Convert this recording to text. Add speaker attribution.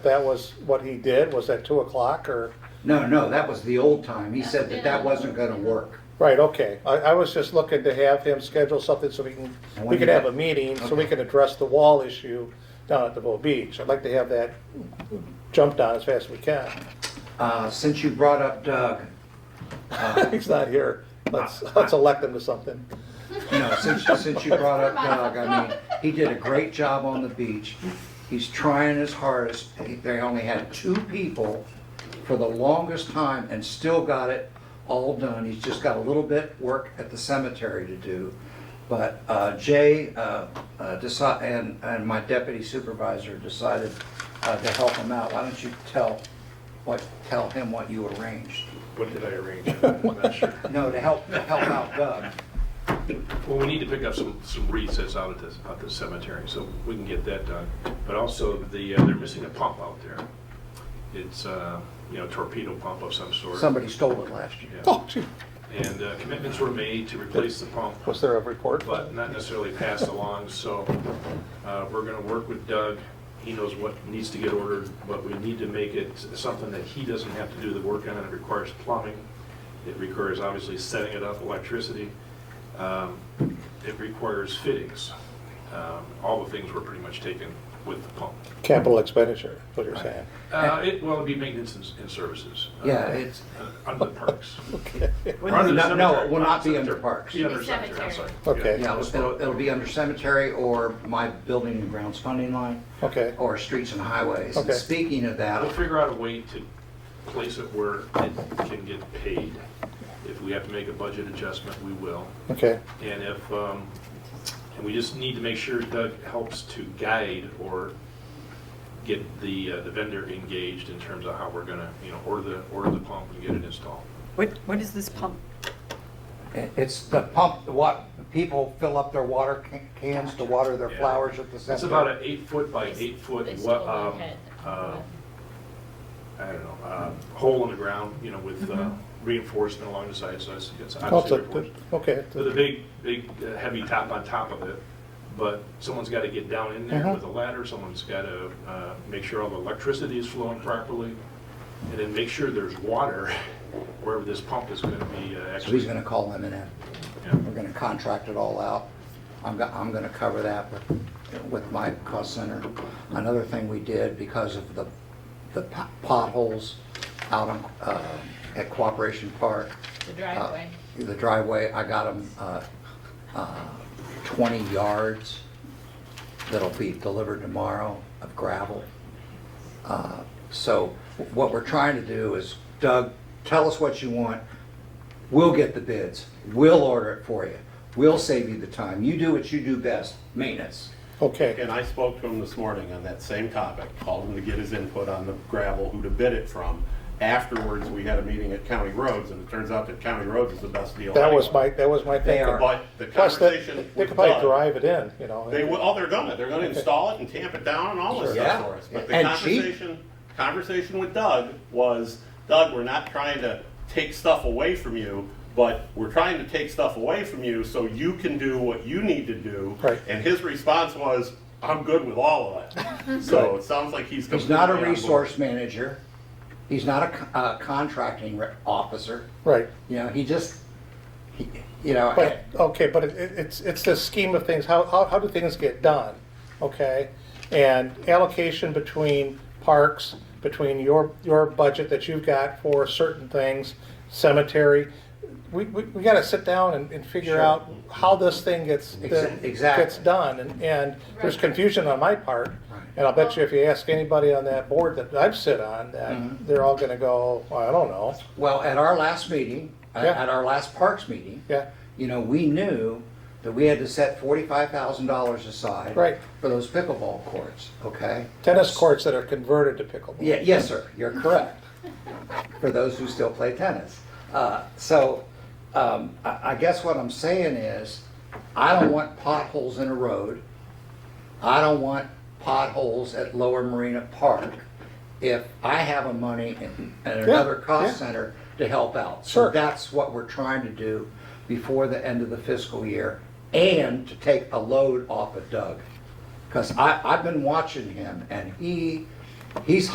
Speaker 1: That was what he did, was at two o'clock or,
Speaker 2: No, no, that was the old time. He said that that wasn't gonna work.
Speaker 1: right, okay. I, I was just looking to have him schedule something so we can,
Speaker 2: And
Speaker 1: we
Speaker 2: when
Speaker 1: could
Speaker 2: you-
Speaker 1: have a meeting, so we
Speaker 2: Okay.
Speaker 1: can address the wall issue down at the Bow Beach. I'd like to have that jumped on as fast as we can.
Speaker 2: Uh, since you brought up Doug,
Speaker 1: He's not here. Let's, let's elect him to something.
Speaker 2: no, since, since you brought up Doug, I mean, he did a great job on the beach. He's trying his hardest. He- They only had two people for the longest time and still got it all done. He's just got a little bit work at the cemetery to do. But uh, Jay uh, uh, deci- and, and my deputy supervisor decided uh, to help him out. Why don't you tell, what, tell him what you arranged?
Speaker 3: What did I arrange? I'm not sure.
Speaker 2: No, to help, to help out Doug.
Speaker 3: Well, we need to pick up some, some wreaths that's out at the, out the cemetery, so we can get that done. But also, the, uh, they're missing a pump out there. It's, uh, you know, torpedo pump of some sort.
Speaker 2: Somebody stole it last year.
Speaker 3: Yeah.
Speaker 1: Oh, gee,
Speaker 3: And uh, commitments were made to replace the pump,
Speaker 1: was there a report?
Speaker 3: but not necessarily passed along, so uh, we're gonna work with Doug. He knows what needs to get ordered, but we need to make it something that he doesn't have to do the work on. It requires plumbing. It requires obviously setting it up, electricity. Um, It requires fittings. Um, All the things were pretty much taken with the pump.
Speaker 1: Capital expenditure, is what you're saying.
Speaker 3: Uh, It, well, it'd be maintenance and and services. uh,
Speaker 2: Yeah, it's,
Speaker 3: uh, Under the parks. Or
Speaker 2: no,
Speaker 3: under the
Speaker 2: no,
Speaker 3: cemetery.
Speaker 2: it will not be under
Speaker 3: Cemetery.
Speaker 2: parks.
Speaker 3: Be
Speaker 2: Yeah,
Speaker 3: under cemetery, I'm sorry.
Speaker 1: Okay.
Speaker 2: it'll, it'll be under cemetery or my building and grounds funding line,
Speaker 1: Okay,
Speaker 2: or streets and highways. And
Speaker 1: Okay.
Speaker 2: speaking of
Speaker 3: We'll
Speaker 2: that,
Speaker 3: figure out a way to place it where it can get paid. If we have to make a budget adjustment, we will.
Speaker 1: okay,
Speaker 3: And if, um, and we just need to make sure Doug helps to guide or get the, uh, the vendor engaged in terms of how we're gonna, you know, order the, order the pump and get it installed.
Speaker 4: What, what is this pump?
Speaker 2: it's the pump, the what, people fill up their water ca- cans to water their
Speaker 3: Yeah.
Speaker 2: flowers at the
Speaker 3: It's about
Speaker 2: cemetery.
Speaker 3: an eight foot by eight foot,
Speaker 5: They
Speaker 3: what,
Speaker 5: stole my
Speaker 3: um,
Speaker 5: head.
Speaker 3: uh, I don't know, uh, hole in the ground, you know, with uh, reinforcement along the sides, so it's, it's
Speaker 1: Oh, it's
Speaker 3: obviously
Speaker 1: a-
Speaker 3: reinforced.
Speaker 1: okay,
Speaker 3: with a big, big uh, heavy top on top of it, but someone's got to get down in there
Speaker 1: Mhm.
Speaker 3: with a ladder, someone's got to make sure all the electricity is flowing properly, and then make sure there's water wherever this pump is going to be uh,
Speaker 2: So he's
Speaker 3: actually.
Speaker 2: gonna call M and M.
Speaker 3: Yeah.
Speaker 2: We're gonna contract it all out. I'm, go- I'm gonna cover that with, with my cost center. Another thing we did because of the, the po- potholes out on, uh, at Cooperation Park.
Speaker 5: The
Speaker 2: uh,
Speaker 5: driveway.
Speaker 2: The driveway, I got them, uh, uh, twenty yards that'll be delivered tomorrow of gravel. Uh, So what we're trying to do is, Doug, tell us what you want. We'll get the bids. We'll order it for you. We'll save you the time. You do what you do best, maintenance.
Speaker 1: okay,
Speaker 6: And I spoke to him this morning on that same topic, called him to get his input on the gravel, who to bid it from. Afterwards, we had a meeting at County Roads, and it turns out that County Roads is the best deal.
Speaker 1: that was
Speaker 6: anyway.
Speaker 1: my, that was my
Speaker 2: They
Speaker 1: thinking.
Speaker 2: are-
Speaker 6: But the
Speaker 1: Plus, they,
Speaker 6: conversation
Speaker 1: they
Speaker 6: with
Speaker 1: could probably
Speaker 6: Doug-
Speaker 1: drive it in, you know.
Speaker 6: They will, oh, they're gonna, they're gonna install it and tamp it down and all this
Speaker 2: Sure. Yeah.
Speaker 6: stuff for us. But the
Speaker 2: And cheap.
Speaker 6: conversation, conversation with Doug was, Doug, we're not trying to take stuff away from you, but we're trying to take stuff away from you so you can do what you need to do.
Speaker 1: Right.
Speaker 6: And his response was, I'm good with all of it. So it sounds like he's.
Speaker 2: He's not a
Speaker 6: completely on board.
Speaker 2: resource manager. He's not a co- uh, contracting re- officer.
Speaker 1: Right,
Speaker 2: You know, he just, he- you know.
Speaker 1: but, okay, but it, it- it's, it's the scheme of things, how, how, how do things get done? Okay, and allocation between parks, between your, your budget that you've got for certain things, cemetery. We, we, we gotta sit down and, and figure
Speaker 2: Sure.
Speaker 1: out how this thing gets,
Speaker 2: Exa- exactly.
Speaker 1: gets done, and, and there's
Speaker 5: Right.
Speaker 1: confusion on my part.
Speaker 2: Right.
Speaker 1: And I'll bet you if you ask anybody on that board that I've sit on, that
Speaker 2: Mhm.
Speaker 1: they're all gonna go, "Well, I don't know,
Speaker 2: Well, at our last meeting, at
Speaker 1: Yeah.
Speaker 2: at our last Parks meeting.
Speaker 1: yeah.
Speaker 2: You know, we knew that we had to set forty-five thousand dollars aside.
Speaker 1: Right.
Speaker 2: For those pickleball courts, okay?
Speaker 1: Tennis courts that are converted to pickleball.
Speaker 2: Yeah, yes, sir, you're correct. For those who still play tennis. Uh, So, um, I, I guess what I'm saying is, I don't want potholes in a road. I don't want potholes at Lower Marina Park if I have a money and and another
Speaker 1: yeah.
Speaker 2: cost center to help out.
Speaker 1: Sure.
Speaker 2: So that's what we're trying to do before the end of the fiscal year and to take a load off of Doug. Because I, I've been watching him and he, he's